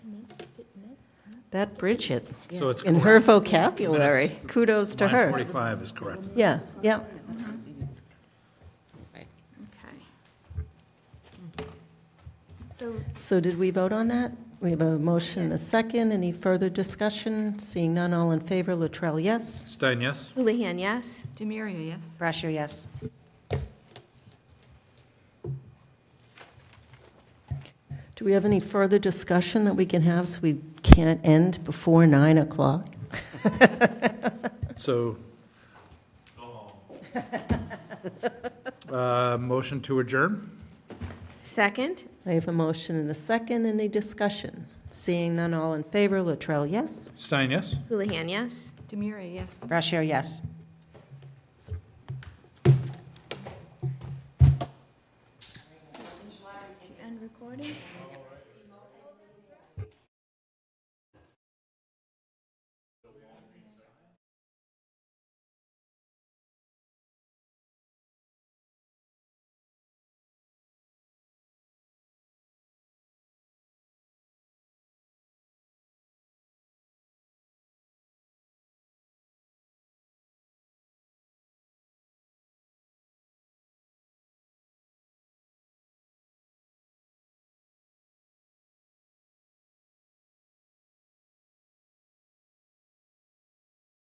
That Bridget, So it's in her correct. vocabulary, kudos to Line her. 45 is correct. Yeah, yeah. Okay. So So did we vote on that? We have a motion, a second, any further discussion? Seeing none, all in favor, Latrell, yes? Stein, yes? Houlihan, yes? Demiria, yes. Brasher, yes. Do we have any further discussion that we can have so we can't end before 9 o'clock? So. Uh, Motion to adjourn? Second? I have a motion and a second, any discussion? Seeing none, all in favor, Latrell, yes? Stein, yes? Houlihan, yes? Demiria, yes. Brasher, yes. End recording?